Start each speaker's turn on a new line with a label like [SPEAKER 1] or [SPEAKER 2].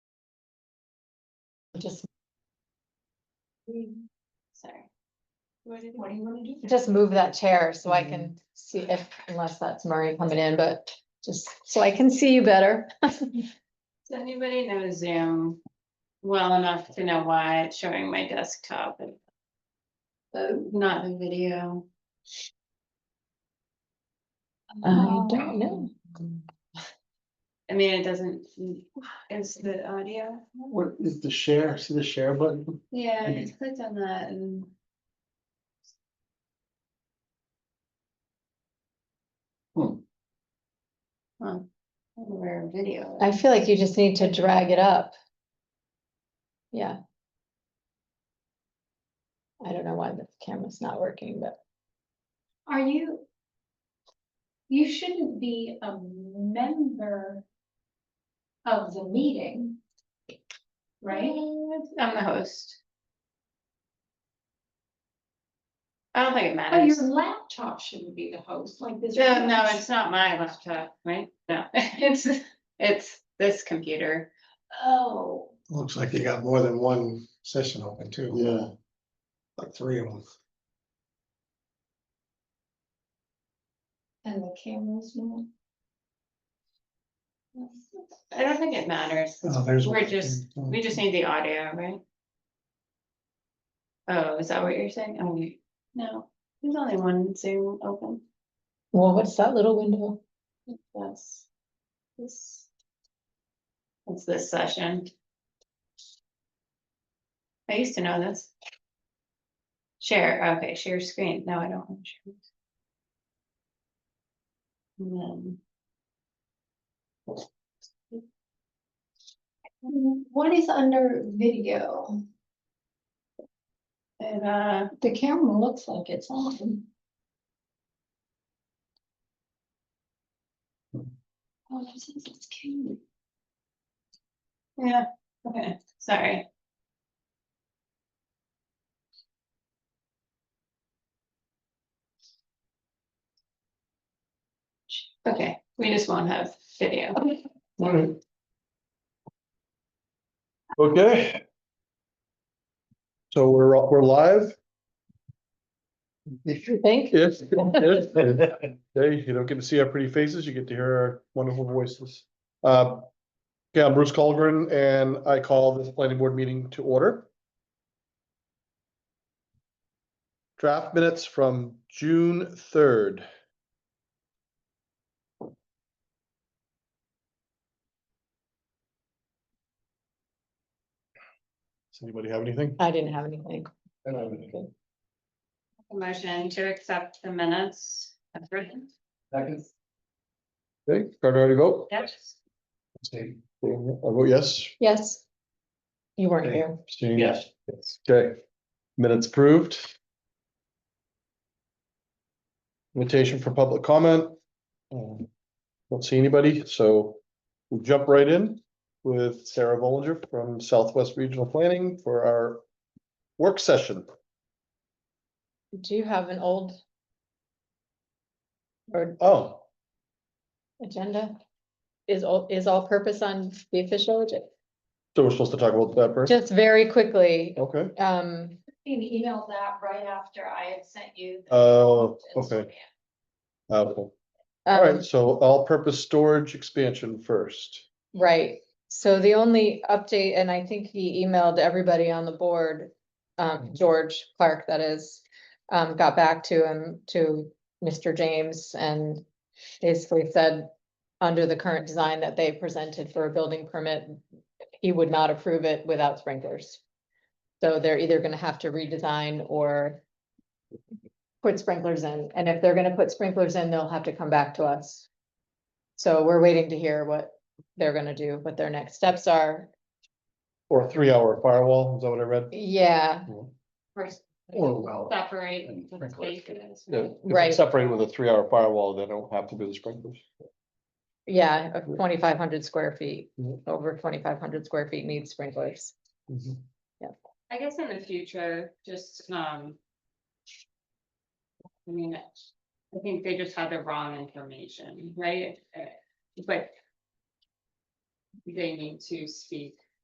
[SPEAKER 1] Just,
[SPEAKER 2] Sorry. What did- what do you wanna do?
[SPEAKER 1] just move that chair so I can see if, unless that's Murray coming in, but just so I can see you better.
[SPEAKER 2] Does anybody know Zoom well enough to know why it's showing my desktop and uh, not the video? Um,
[SPEAKER 1] I don't know.
[SPEAKER 2] I mean, it doesn't, is the audio?
[SPEAKER 3] What is the share? See the share button?
[SPEAKER 2] Yeah, I just clicked on that and.
[SPEAKER 3] Hmm.
[SPEAKER 2] Huh. Where video.
[SPEAKER 1] I feel like you just need to drag it up. Yeah. I don't know why the camera's not working, but
[SPEAKER 4] Are you? You shouldn't be a member of the meeting. Right?
[SPEAKER 2] I'm the host. I don't think it
[SPEAKER 4] Oh,
[SPEAKER 2] matters.
[SPEAKER 4] your laptop shouldn't be the host, like this.
[SPEAKER 2] No, no, it's not my laptop, right? No, it's, it's this computer.
[SPEAKER 4] Oh,
[SPEAKER 5] Looks like you got more than one session open too.
[SPEAKER 3] Yeah,
[SPEAKER 5] Like three of them.
[SPEAKER 4] and the camera's not.
[SPEAKER 2] I don't think it matters.
[SPEAKER 5] Oh, there's
[SPEAKER 2] We're
[SPEAKER 5] one. Mm.
[SPEAKER 2] just, we just need the audio, right? Oh, is that what you're saying? Oh, you- no, there's only one Zoom open.
[SPEAKER 1] well, what's that little window?
[SPEAKER 2] That's this. It's this session. I used to know this. Share, okay, share screen. No, I don't. want to share. And then.
[SPEAKER 4] What is under video?
[SPEAKER 2] And uh,
[SPEAKER 4] The camera looks like it's on. Oh, it says it's camera.
[SPEAKER 2] yeah, okay, sorry. Okay, we just won't have video.
[SPEAKER 3] alright. Okay. So we're, we're live?
[SPEAKER 1] You think?
[SPEAKER 3] Yes. yes. Hey, you don't get to see our pretty faces, you get to hear our wonderful voices. Uh, yeah, I'm Bruce Colgren and I call this planning board meeting to order. Draft minutes from June third. Does anybody have anything?
[SPEAKER 1] I didn't have anything.
[SPEAKER 3] I don't have anything.
[SPEAKER 2] Motion to accept the minutes. as written.
[SPEAKER 3] Okay, Carter, how do you vote?
[SPEAKER 2] Yes.
[SPEAKER 3] I vote yes.
[SPEAKER 1] Yes. You weren't here.
[SPEAKER 3] Abstain? Okay, minutes approved. Invitation for public comment. Um, Don't see anybody, so we'll jump right in with Sarah Bollinger from Southwest Regional Planning for our work session.
[SPEAKER 1] Do you have an old or
[SPEAKER 3] Oh,
[SPEAKER 1] agenda? Is all, is all purpose on the official agenda?
[SPEAKER 3] so we're supposed to talk about that first?
[SPEAKER 1] Just very quickly,
[SPEAKER 3] Okay,
[SPEAKER 1] um,
[SPEAKER 4] And email that right after I had sent you. the-
[SPEAKER 3] oh, okay. Uh, All
[SPEAKER 1] um,
[SPEAKER 3] right, so all-purpose storage expansion first.
[SPEAKER 1] right. So the only update, and I think he emailed everybody on the board, um, George Clark, that is, um, got back to him, to Mr. James and basically said, under the current design that they presented for a building permit, he would not approve it without sprinklers. So they're either gonna have to redesign or put sprinklers in, and if they're gonna put sprinklers in, they'll have to come back to us. So we're waiting to hear what they're gonna do, what their next steps are.
[SPEAKER 3] Or three-hour firewall, is that what I read?
[SPEAKER 1] Yeah,
[SPEAKER 2] First,
[SPEAKER 5] Or well.
[SPEAKER 2] separate
[SPEAKER 5] And
[SPEAKER 2] the
[SPEAKER 5] sprinkler.
[SPEAKER 2] spaces.
[SPEAKER 3] Yeah, if
[SPEAKER 1] Right.
[SPEAKER 3] it's separated with a three-hour firewall, then I don't have to do the sprinklers.
[SPEAKER 1] yeah, of twenty-five hundred square feet,
[SPEAKER 3] Yeah.
[SPEAKER 1] over twenty-five hundred square feet needs sprinklers.
[SPEAKER 2] I guess in the future, just, um. I mean, I think they just had the wrong information, right? Uh, But. They need to speak